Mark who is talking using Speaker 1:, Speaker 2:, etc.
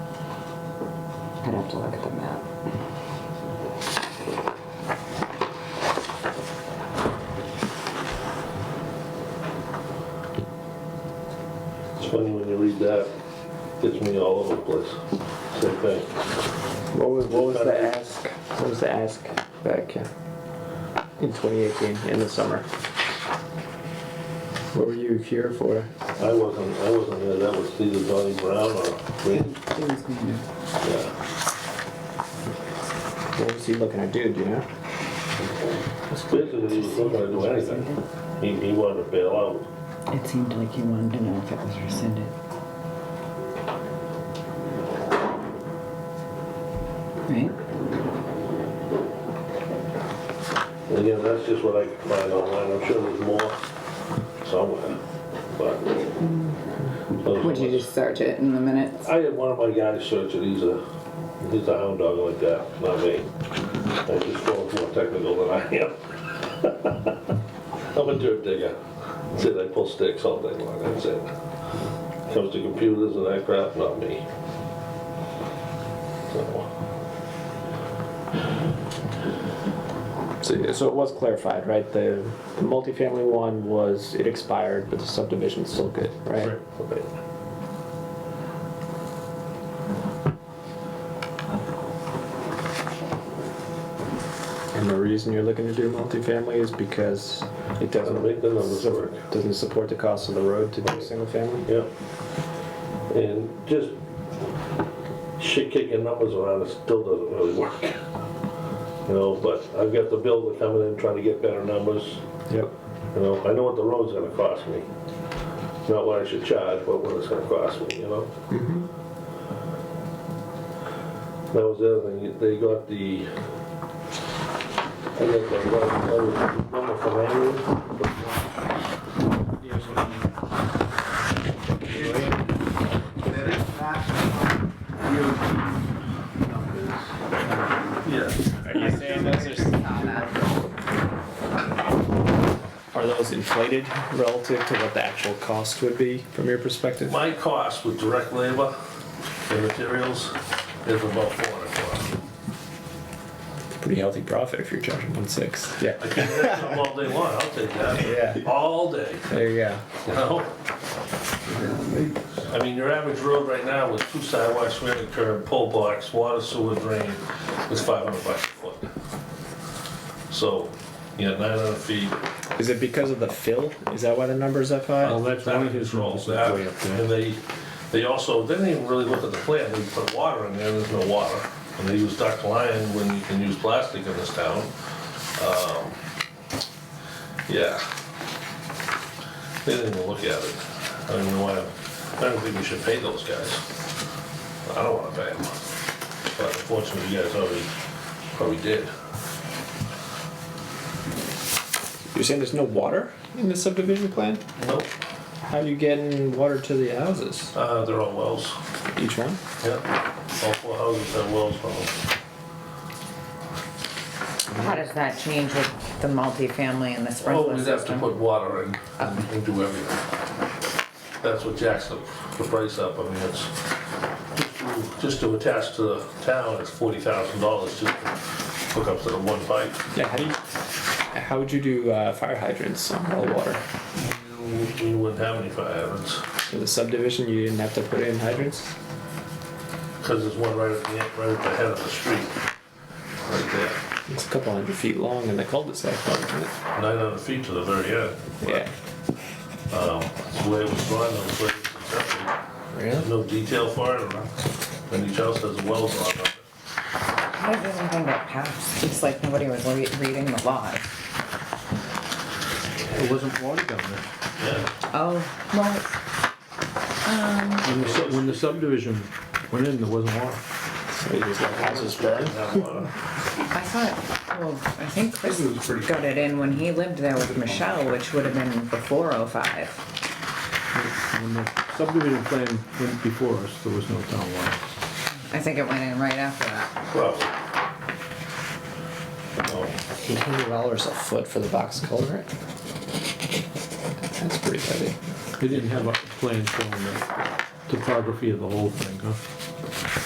Speaker 1: I'd have to look at the map.
Speaker 2: It's funny when you read that, gets me all over the place. Same thing.
Speaker 3: What was, what was the ask? What was the ask back in 2018 in the summer? What were you here for?
Speaker 2: I wasn't, I wasn't there, that was either Donnie Brown or Green.
Speaker 1: It was going
Speaker 2: Yeah.
Speaker 3: What was he looking to do? Do you know?
Speaker 2: Basically, he was looking to do anything. He, he wanted to bail out.
Speaker 1: It seemed like you wanted to know if it was rescinded. Right?
Speaker 2: And again, that's just what I could find online, I'm sure there's more somewhere, but. those
Speaker 1: Would you
Speaker 2: ones-
Speaker 1: just search it in the minutes?
Speaker 2: I had one of my guys search it, he's a, he's a hound dog like that, not me. I just go more technical than I am. I'm a dirt digger, that's it, I pull sticks all day long, that's it. Comes to computers and that crap, not me. So,
Speaker 3: So, so it was clarified, right? The, the multifamily one was it expired, but the subdivision's still good, right?
Speaker 2: okay.
Speaker 3: And the reason you're looking to do multifamily is because it doesn't
Speaker 2: Make the numbers
Speaker 3: sup-
Speaker 2: work.
Speaker 3: doesn't support the cost of the road to do single family.
Speaker 2: Yeah. And just shit kicking numbers around, it still doesn't really work. You know, but I've got the builder coming in trying to get better numbers,
Speaker 3: Yep.
Speaker 2: you know, I know what the road's gonna cost me. Not what I should charge, but what it's gonna cost me, you know? That was the other thing, they got the, I got the, right- that was number from Andrew.
Speaker 4: There is not DOT numbers.
Speaker 5: Are you saying those are, s-
Speaker 3: Are those inflated relative to what the actual cost would be from your perspective?
Speaker 2: My cost with direct labor and materials is about four hundred bucks.
Speaker 3: Pretty healthy profit if you're charging one six. Yeah.
Speaker 2: I can make them all day long, I'll take that.
Speaker 3: Yeah.
Speaker 2: All day,
Speaker 3: There you go.
Speaker 2: you know? I mean, your average road right now with two sidewalks, rear curb, pull box, water sewer drain, is five hundred bucks a foot. So, you know, nine hundred feet.
Speaker 3: Is it because of the fill? Is that why the number's that high?
Speaker 2: that's one of his rolls. And they, they also, they didn't even really look at the plant, they put water in there, there's no water. And they use duct line when you can use plastic in this town. Um, Yeah. They didn't even look at it. I don't even know why, I don't think we should pay those guys. I don't wanna pay them. But unfortunately, you guys already, probably did.
Speaker 3: You're saying there's no water in the subdivision plan?
Speaker 2: Nope,
Speaker 3: How are you getting water to the houses?
Speaker 2: uh, they're all wells.
Speaker 3: Each one?
Speaker 2: Yeah, all four houses have wells on them.
Speaker 1: How does that change with the multifamily and the
Speaker 2: Oh,
Speaker 1: sprinkler
Speaker 2: we'd have to
Speaker 1: system?
Speaker 2: put water in and do everything. That's what jacks the, the price up, I mean, it's, just to- just to attach to the town, it's forty thousand dollars to hook up to the one pipe.
Speaker 3: Yeah, how do you, how would you do uh, fire hydrants on well water?
Speaker 2: You- You wouldn't have any fire hydrants,
Speaker 3: For the subdivision, you didn't have to put in hydrants?
Speaker 2: because there's one right at the, end- right at the head of the street, right there,
Speaker 3: It's a couple hundred feet long and they cul-de-sac, probably, isn't it?
Speaker 2: nine hundred feet to the very end.
Speaker 3: Yeah.
Speaker 2: Um, that's the way it was drawn, that was the way it was accepted. There's
Speaker 3: Really?
Speaker 2: No detail for it, and each house has wells on it.
Speaker 1: How did anything get passed? It's like nobody was re- reading the law.
Speaker 4: It wasn't water down there.
Speaker 2: Yeah,
Speaker 1: Oh, well,
Speaker 4: When the sub- When the subdivision went in, there wasn't water.
Speaker 3: So you just let houses burn?
Speaker 2: didn't have water.
Speaker 1: I thought, well, I think Chris got it in when he lived there with Michelle, which would have been before '05.
Speaker 4: When the subdivision plan went before us, there was no town water.
Speaker 1: I think it went in right after that.
Speaker 2: Probably. Oh,
Speaker 3: Eight hundred dollars a foot for the box culvert? That's pretty heavy.
Speaker 4: They didn't have a plan showing the topography of the whole thing, huh?